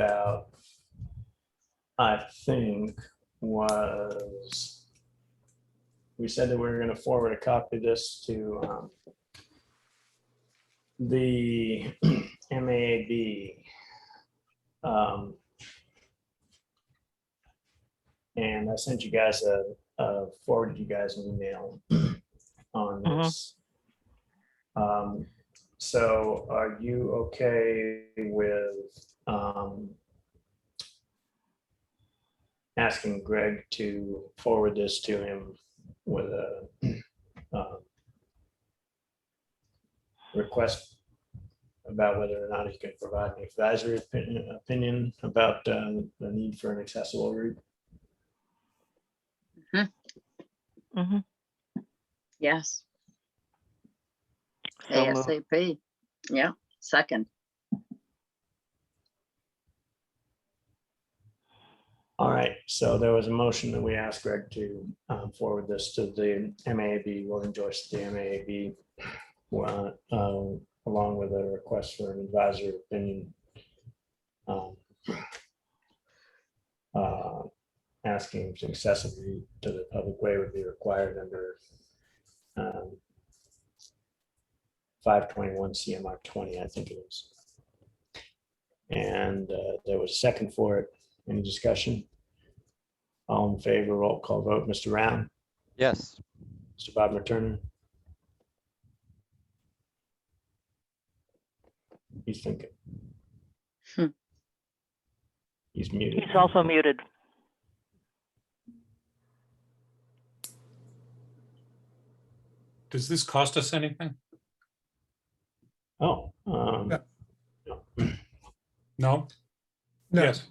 about, I think, was, we said that we were going to forward a copy of this to um, the MAB. um, And I sent you guys a, a- forwarded you guys an email on Mhm. this. Um, So are you okay with um, asking Greg to forward this to him with a um, request about whether or not he can provide an advisory opinion, opinion about uh, the need for an accessible route. Mhm. Yes. So moved. ASAP. Yeah, second. All right, so there was a motion that we asked Greg to um, forward this to the MAB, William Joyce, the MAB, wa- um, along with a request for an advisory opinion. um, uh, Asking if accessibility to the public way would be required under um, five twenty-one CMR twenty, I think it is. And uh, there was a second for it. Any discussion? All in favor, roll call vote. Mr. Round, Yes, Mr. Bob McTurnan. He's thinking. Hmm. He's muted. He's also muted. Does this cost us anything? Oh, um, Yeah. No? Yes.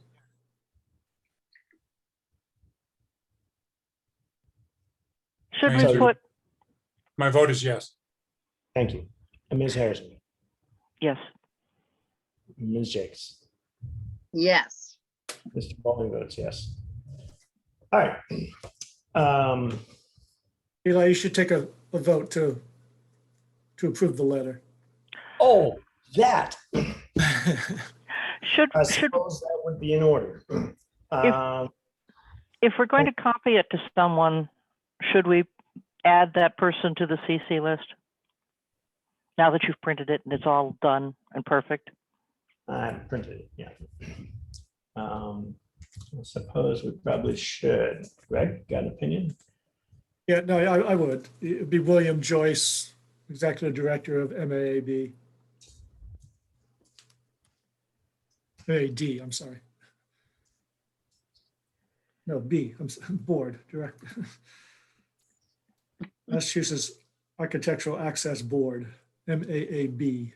Should Thank we you. put, My vote is yes. thank you. And Ms. Harrison, yes, Ms. Jakes, Yes, Mr. Bowling votes yes. All right. Um, Eli, you should take a, a vote to, to approve the letter. Oh, that, should, I should, suppose that would be in order. Um, if we're going to Oh. copy it to someone, should we add that person to the CC list? Now that you've printed it and it's all done and perfect? I haven't printed it, yeah. Um, I suppose we probably should. Greg, got an opinion? Yeah, no, I, I would. It'd be William Joyce, Executive Director of MAAB. AD, I'm sorry. No, B, I'm, s- Board, Director. Massachusetts Architectural Access Board, MAAB.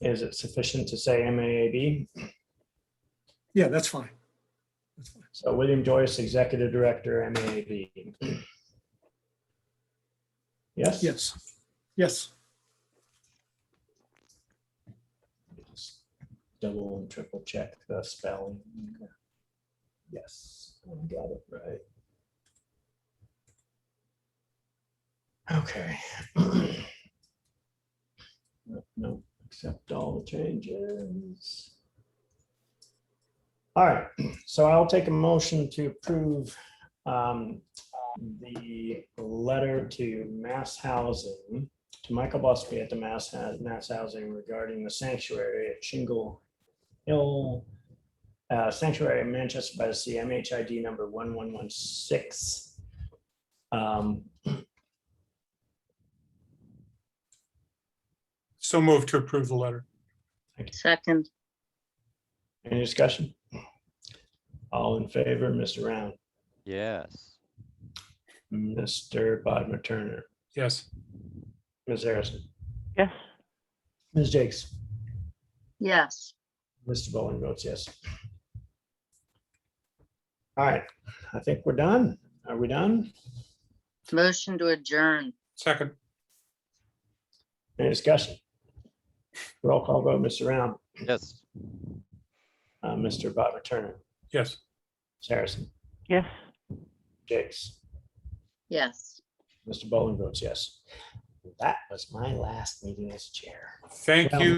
Is it sufficient to say MAAB? Yeah, that's fine. That's fine. So William Joyce, Executive Director, MAAB. Yes? Yes, yes. Just Double and triple check the spelling. Yes, I got it right. Okay. No, No, accept all the changes. All right, so I'll take a motion to approve um, the letter to Mass Housing to Michael Busby at the Mass, Hou- Mass Housing regarding the sanctuary at Shingle Hill uh, Sanctuary in Manchester by the Sea, MHID number 1116. Um, So move to approve the letter. second. Any discussion? All in favor, Mr. Round, yes, Mr. Bodmer Turner, Yes. Ms. Harrison, Yes, Ms. Jakes, Yes, Mr. Bowling votes yes. All right, I think we're done. Are we done? motion to adjourn. Second. Any discussion? Roll call vote, Mr. Round, yes. uh, Mr. Bodmer Turner, Yes. Ms. Harrison, yes. Jakes. Yes. Mr. Bowling votes yes. That was my last meeting as chair. Thank Well- you.